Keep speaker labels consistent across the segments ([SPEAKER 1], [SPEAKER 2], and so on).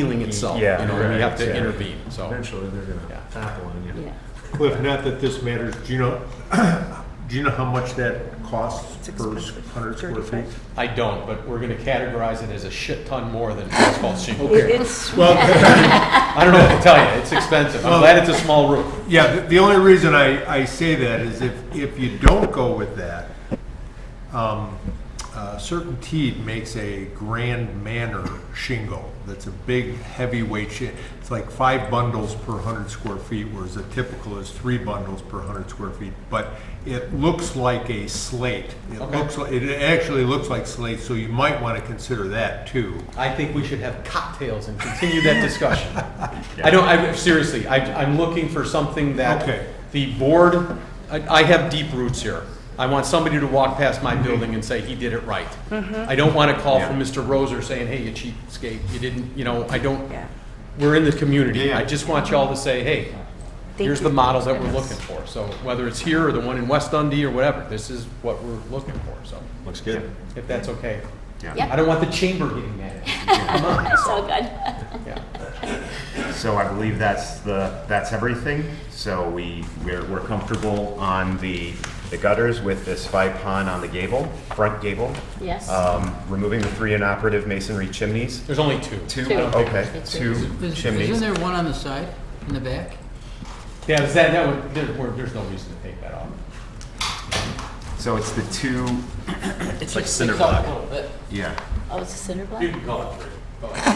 [SPEAKER 1] healing itself.
[SPEAKER 2] Yeah,
[SPEAKER 1] You know, and we
[SPEAKER 2] right,
[SPEAKER 1] have to
[SPEAKER 2] yeah.
[SPEAKER 1] intervene, so.
[SPEAKER 2] Eventually, they're
[SPEAKER 1] Oh. Yeah.
[SPEAKER 2] gonna topple on you.
[SPEAKER 3] Yeah,
[SPEAKER 4] Cliff, not that this matters, do you know, do you know how much that costs per hundred square feet?
[SPEAKER 1] I don't, but we're gonna categorize it as a shit ton more than asphalt shingle.
[SPEAKER 3] It- it's,
[SPEAKER 4] Well,
[SPEAKER 1] I don't know what to tell you, it's expensive. I'm glad it's a small roof.
[SPEAKER 4] yeah, the- the only reason I, I say that is if, if you don't go with that, um, uh, Certain makes a Grand Manor shingle that's a big heavyweight shi, it's like five bundles per hundred square feet, whereas the typical is three bundles per hundred square feet. But it looks like a slate. It
[SPEAKER 1] Okay.
[SPEAKER 4] looks, li- it actually looks like slate, so you might want to consider that too.
[SPEAKER 1] I think we should have cocktails and continue that discussion. I don't, I, seriously, I, I'm looking for something
[SPEAKER 4] Okay.
[SPEAKER 1] that the board, I, I have deep roots here. I want somebody to walk past
[SPEAKER 2] Mm-hmm.
[SPEAKER 1] my building and say, he did it right. I don't want a call from Mr. Roser saying, hey, you cheapskate, you didn't, you know, I don't,
[SPEAKER 3] yeah.
[SPEAKER 1] we're in the community.
[SPEAKER 4] Yeah.
[SPEAKER 1] I just want y'all to say, hey,
[SPEAKER 3] Thank
[SPEAKER 1] here's
[SPEAKER 3] you.
[SPEAKER 1] the models that we're looking for. So whether it's here or the one in West Dundee or whatever, this is what we're looking for, so,
[SPEAKER 5] Looks good.
[SPEAKER 1] if that's okay. I
[SPEAKER 3] Yeah,
[SPEAKER 1] don't want the chamber getting mad at
[SPEAKER 3] it's all good.
[SPEAKER 1] me. Yeah.
[SPEAKER 2] So I believe that's the, that's everything. So we, we're, we're comfortable on the, the gutters with this five pond on the gable, front gable.
[SPEAKER 3] Yes.
[SPEAKER 2] Um, removing the three inoperative masonry chimneys.
[SPEAKER 1] There's only two.
[SPEAKER 2] Two,
[SPEAKER 3] Two.
[SPEAKER 2] okay,
[SPEAKER 3] It's
[SPEAKER 2] two
[SPEAKER 6] Is- Isn't
[SPEAKER 2] chimneys.
[SPEAKER 6] there one on the side, in the back?
[SPEAKER 1] Yeah, is that, that would, there, we're- there's no reason to take that off.
[SPEAKER 2] So it's the two,
[SPEAKER 6] It's
[SPEAKER 5] like
[SPEAKER 6] just
[SPEAKER 5] cinder
[SPEAKER 6] sticks out
[SPEAKER 5] block.
[SPEAKER 6] a little bit.
[SPEAKER 2] yeah,
[SPEAKER 3] Oh, it's a cinder block?
[SPEAKER 1] can call it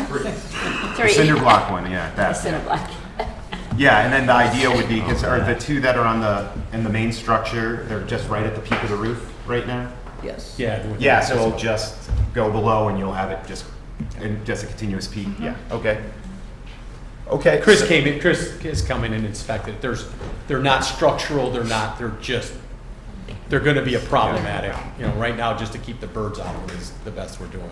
[SPEAKER 1] three.
[SPEAKER 2] the
[SPEAKER 3] Three.
[SPEAKER 2] cinder block one, yeah,
[SPEAKER 3] A
[SPEAKER 2] that.
[SPEAKER 3] cinder block.
[SPEAKER 2] Yeah, and then the idea would be, because are the two that are on the, in the main structure, they're just right at the peak of the roof right now?
[SPEAKER 6] Yes.
[SPEAKER 1] Yeah. with-
[SPEAKER 2] Yeah, so it'll just go below and you'll have it just, and just a continuous peak, yeah, okay. Okay.
[SPEAKER 1] Chris came in, Chris is coming and inspected. There's, they're not structural, they're not, they're just, they're gonna be a problematic. You know, right now, just to keep the birds out is the best we're doing.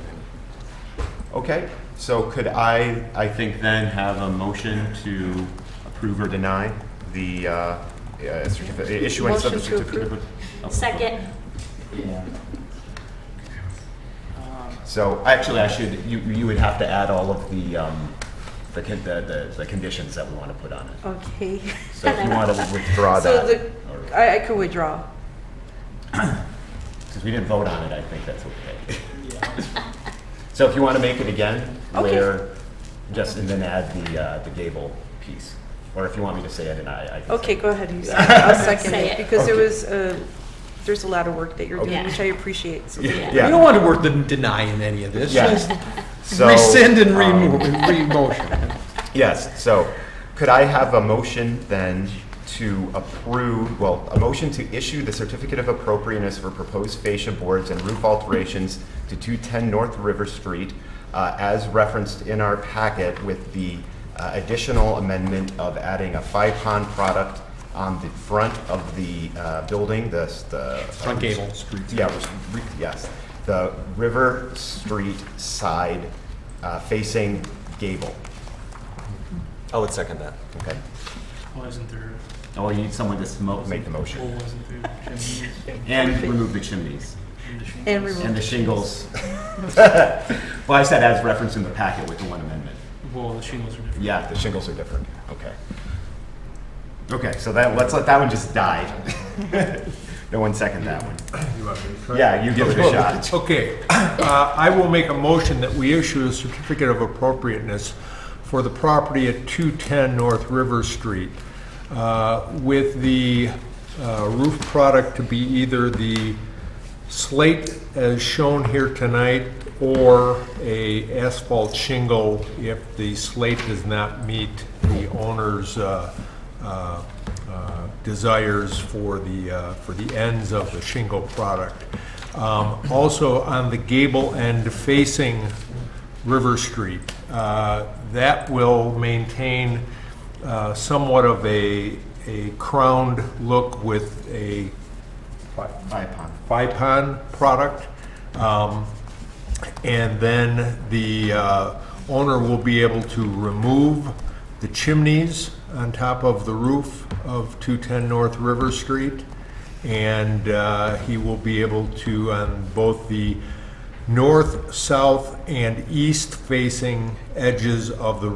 [SPEAKER 2] Okay, so could I, I think then have a motion to approve or deny the, uh, uh, certificate, issuance of the
[SPEAKER 3] Motion to approve.
[SPEAKER 2] certificate? of-
[SPEAKER 3] Second,
[SPEAKER 2] So, actually, I should, you, you would have to add all of the, um, the, con- the, the- the conditions that we want to put on it.
[SPEAKER 7] Okay,
[SPEAKER 2] So if you want to withdraw
[SPEAKER 7] so
[SPEAKER 2] that.
[SPEAKER 7] the, I, I could withdraw.
[SPEAKER 2] Because we didn't vote on it, I think that's okay. So if you want to make it again,
[SPEAKER 7] Okay.
[SPEAKER 2] where, just, and then add the, uh, the gable piece. Or if you want me to say it, and I, I can say
[SPEAKER 7] Okay, go ahead, you say it. I'll second
[SPEAKER 3] Say
[SPEAKER 7] it,
[SPEAKER 3] it.
[SPEAKER 7] because there
[SPEAKER 2] Okay.
[SPEAKER 7] was, uh, there's a lot of work that you're
[SPEAKER 3] Okay.
[SPEAKER 7] doing, which I appreciate, so
[SPEAKER 2] it.
[SPEAKER 3] Yeah.
[SPEAKER 1] We don't want to work the denying any of this.
[SPEAKER 2] Yeah.
[SPEAKER 1] Just
[SPEAKER 2] So,
[SPEAKER 1] rescind and
[SPEAKER 2] um,
[SPEAKER 1] remove, re-motion.
[SPEAKER 2] Yes, so could I have a motion then to approve, well, a motion to issue the certificate of appropriateness for proposed fascia boards and roof alterations to 210 North River Street uh, as referenced in our packet with the uh, additional amendment of adding a five-pond product on the front of the uh, building, the, uh, the.
[SPEAKER 1] Front gable.
[SPEAKER 2] Yeah, it was re- yes, the River Street side uh, facing gable.
[SPEAKER 5] I would second that.
[SPEAKER 2] Okay,
[SPEAKER 8] wasn't there,
[SPEAKER 9] Oh, you need someone to smoke,
[SPEAKER 2] make the
[SPEAKER 8] Well,
[SPEAKER 2] motion.
[SPEAKER 8] wasn't there chimneys
[SPEAKER 9] and remove the chimneys
[SPEAKER 8] in the shingles?
[SPEAKER 7] And remove.
[SPEAKER 9] and the shingles. Well, I said as referenced in the packet with the one amendment.
[SPEAKER 8] Well, the shingles are different.
[SPEAKER 9] Yeah,
[SPEAKER 2] The shingles are different, okay. Okay, so that, let's let that one just die. No one second that one.
[SPEAKER 4] You want me to try?
[SPEAKER 2] Yeah, you give it a shot.
[SPEAKER 4] Okay, uh, I will make a motion that we issue a certificate of appropriateness for the property at 210 North River Street uh, with the uh, roof product to be either the slate as shown here tonight or a asphalt shingle if the slate does not meet the owner's uh, uh, uh, desires for the, uh, for the ends of the shingle product. Um, Also, on the gable end facing River Street, uh, that will maintain uh, somewhat of a, a crowned look with a
[SPEAKER 2] Bye, Pon.
[SPEAKER 4] FIPON product. Um, And then the uh, owner will be able to remove the chimneys on top of the roof of 210 North River Street. And uh, he will be able to, on both the north, south, and east-facing edges of the